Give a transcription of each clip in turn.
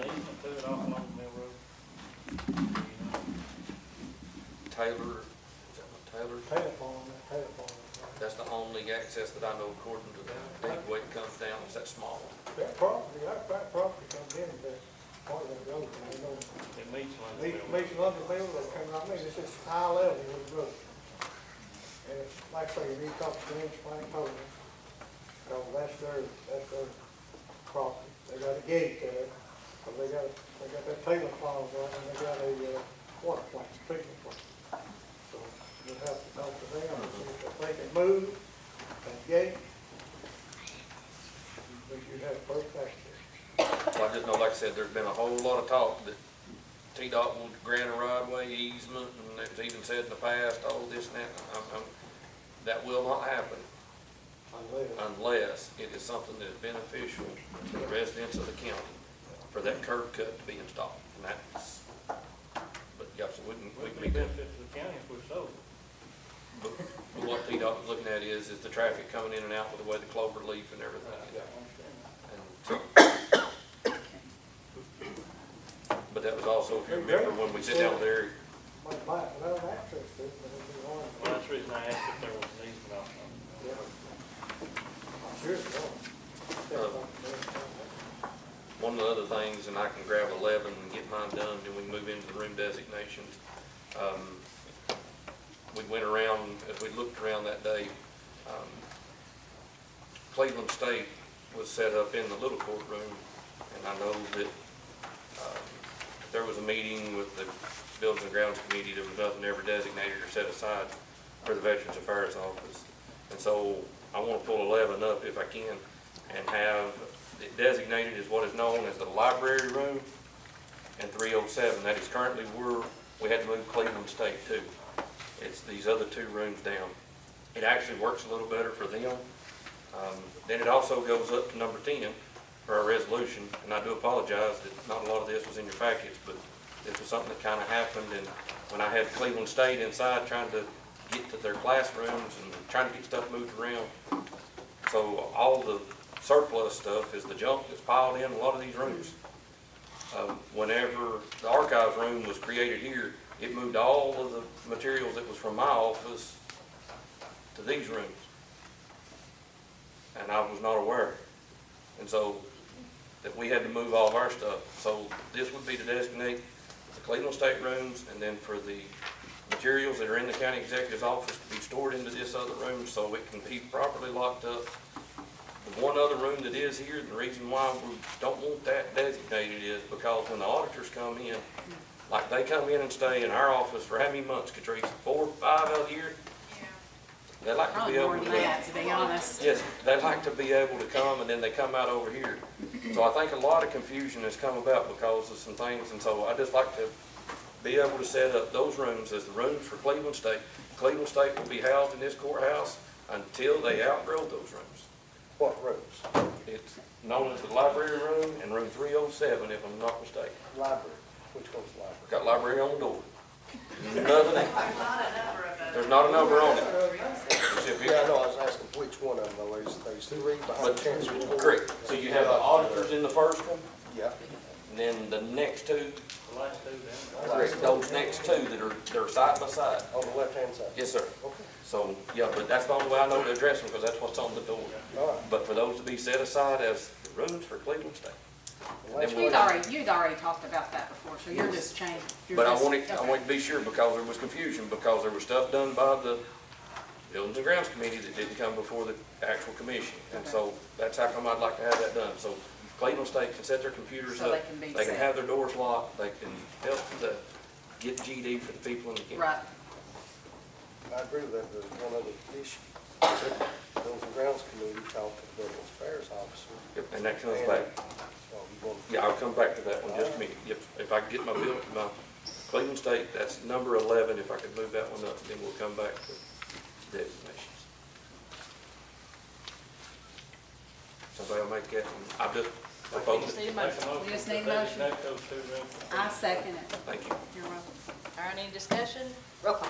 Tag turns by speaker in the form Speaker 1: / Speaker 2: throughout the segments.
Speaker 1: that off along Mill Road?
Speaker 2: Taylor, is that what Taylor?
Speaker 3: Taylor Farm, that Taylor Farm. right.
Speaker 2: That's the only access that I know according to the deed weight comes down, is that small one.
Speaker 3: That property, that, that property comes in, that part of that road, you know,
Speaker 1: It meets along the
Speaker 3: leaves,
Speaker 1: Mill Road.
Speaker 3: leaves London Mill, that comes, I mean, it's just high level with the road. And it's, like I say, you need to talk to them, explain to them, so that's their, that's their property. They got a gate there, so they got, they got that Taylor Farm, there, and they got a, uh, water plant, treatment plant. So you'll have to talk to them, and see if they can move that gate. But you have perfect access.
Speaker 2: I just know, like I said, there's been a whole lot of talk that T-Dot will grant a right way easement, and it's even said in the past, all this and that, I'm, I'm, that will not happen unless it is something that is beneficial to the residents of the county for that curb cut to be installed, and that's, but, yeah, so we can, we
Speaker 1: Would
Speaker 2: can
Speaker 1: be
Speaker 2: make that.
Speaker 1: benefit to the county if we sold it.
Speaker 2: But What PDOT was looking at is, is the traffic coming in and out with the way the clover leaf and everything.
Speaker 1: Yeah, I understand.
Speaker 2: And- But that was also, if you remember, when we sit down there,
Speaker 3: Might buy it without access to it, but it'd be hard.
Speaker 1: Well, that's the reason I asked if there was an easement off on
Speaker 3: Yeah. I'm sure it will.
Speaker 2: Uh, one of the other things, and I can grab eleven and get mine done, then we can move into the room designations. Um, We went around, as we looked around that day, um, Cleveland State was set up in the little courtroom, and I know that, um, there was a meeting with the Buildings and Grounds Committee, there was nothing ever designated or set aside for the Veterans Affairs Office. And so I wanna pull eleven up if I can and have it designated as what is known as the library room and three oh seven. That is currently where we had to move Cleveland State to. It's these other two rooms down. It actually works a little better for them. Um, Then it also goes up to number ten for our resolution, and I do apologize that not a lot of this was in your packets, but this was something that kind of happened, and when I had Cleveland State inside trying to get to their classrooms and trying to get stuff moved around, so all the surplus stuff is the junk that's piled in a lot of these rooms. Um, Whenever the archives room was created here, it moved all of the materials that was from my office to these rooms. And I was not aware. And so that we had to move all of our stuff. So this would be to designate the Cleveland State rooms and then for the materials that are in the county executive's office to be stored into this other room so it can be properly locked up. The one other room that is here, the reason why we don't want that designated is because when the auditors come in, like they come in and stay in our office for how many months, Catrice? Four, five out of the year? They like to be
Speaker 4: Probably
Speaker 2: able
Speaker 4: more
Speaker 2: to.
Speaker 4: than that, to be honest.
Speaker 2: Yes, they like to be able to come and then they come out over here. So I think a lot of confusion has come about because of some things, and so I just like to be able to set up those rooms as the rooms for Cleveland State. Cleveland State will be housed in this courthouse until they outgrow those rooms.
Speaker 3: What roads?
Speaker 2: It's known as the library room and room three oh seven, if I'm not mistaken.
Speaker 3: Library, which goes library?
Speaker 2: We've got library on the door. Nothing, there's not a number on it. It's if you-
Speaker 5: Yeah, I know, I was asking which one of them, there's, there's three behind
Speaker 2: But-
Speaker 5: the chancery court.
Speaker 2: Correct, so you have the auditors in the first one,
Speaker 5: Yeah,
Speaker 2: and then the next two
Speaker 1: the last two down there.
Speaker 2: Correct, those next two that are, they're side by side.
Speaker 5: on the left-hand side.
Speaker 2: Yes, sir.
Speaker 5: Okay,
Speaker 2: So, yeah, but that's the only way I know to address them, because that's what's on the door.
Speaker 5: all right.
Speaker 2: But for those to be set aside as the rooms for Cleveland State.
Speaker 5: The
Speaker 2: And
Speaker 5: last
Speaker 2: then
Speaker 4: You'd
Speaker 2: we'll-
Speaker 4: already, you'd already talked about that before, so you're just changing. you're
Speaker 2: But I
Speaker 4: just-
Speaker 2: wanted, I
Speaker 4: okay.
Speaker 2: wanted to be sure, because there was confusion, because there was stuff done by the Buildings and Grounds Committee that didn't come before the actual commission. And so that's how come I'd like to have that done. So Cleveland State can set their computers
Speaker 4: So
Speaker 2: up.
Speaker 4: they can be set.
Speaker 2: have their doors locked, they can help the, get GD for the people in the county.
Speaker 4: Right,
Speaker 5: I agree with that, there's one other issue. The Buildings and Grounds Committee talked to the Veterans Affairs Officer. uh,
Speaker 2: Yep, And that comes back.
Speaker 5: So you want,
Speaker 2: Yeah, I'll come back to that one just a minute. Yep, if I can get my bill, my Cleveland State, that's number eleven, if I could move that one up, then we'll come back to designations. Somebody will make that, one. I just proposed it,
Speaker 4: need a
Speaker 1: Make a
Speaker 4: motion. We just
Speaker 1: to
Speaker 4: need a motion.
Speaker 1: designate those two rooms.
Speaker 4: I second it.
Speaker 2: thank you.
Speaker 4: You're welcome.
Speaker 6: All right, any discussion?
Speaker 4: Roll call.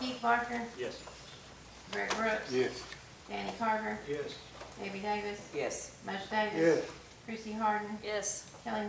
Speaker 6: Keith Parker,
Speaker 1: Yes.
Speaker 6: Brett Brooks. Yes. Danny Carver,
Speaker 3: Yes.
Speaker 6: Debbie Davis,
Speaker 4: Yes.
Speaker 6: Mush Davis.
Speaker 3: Yes.
Speaker 6: Chrissy Harden,
Speaker 7: Yes,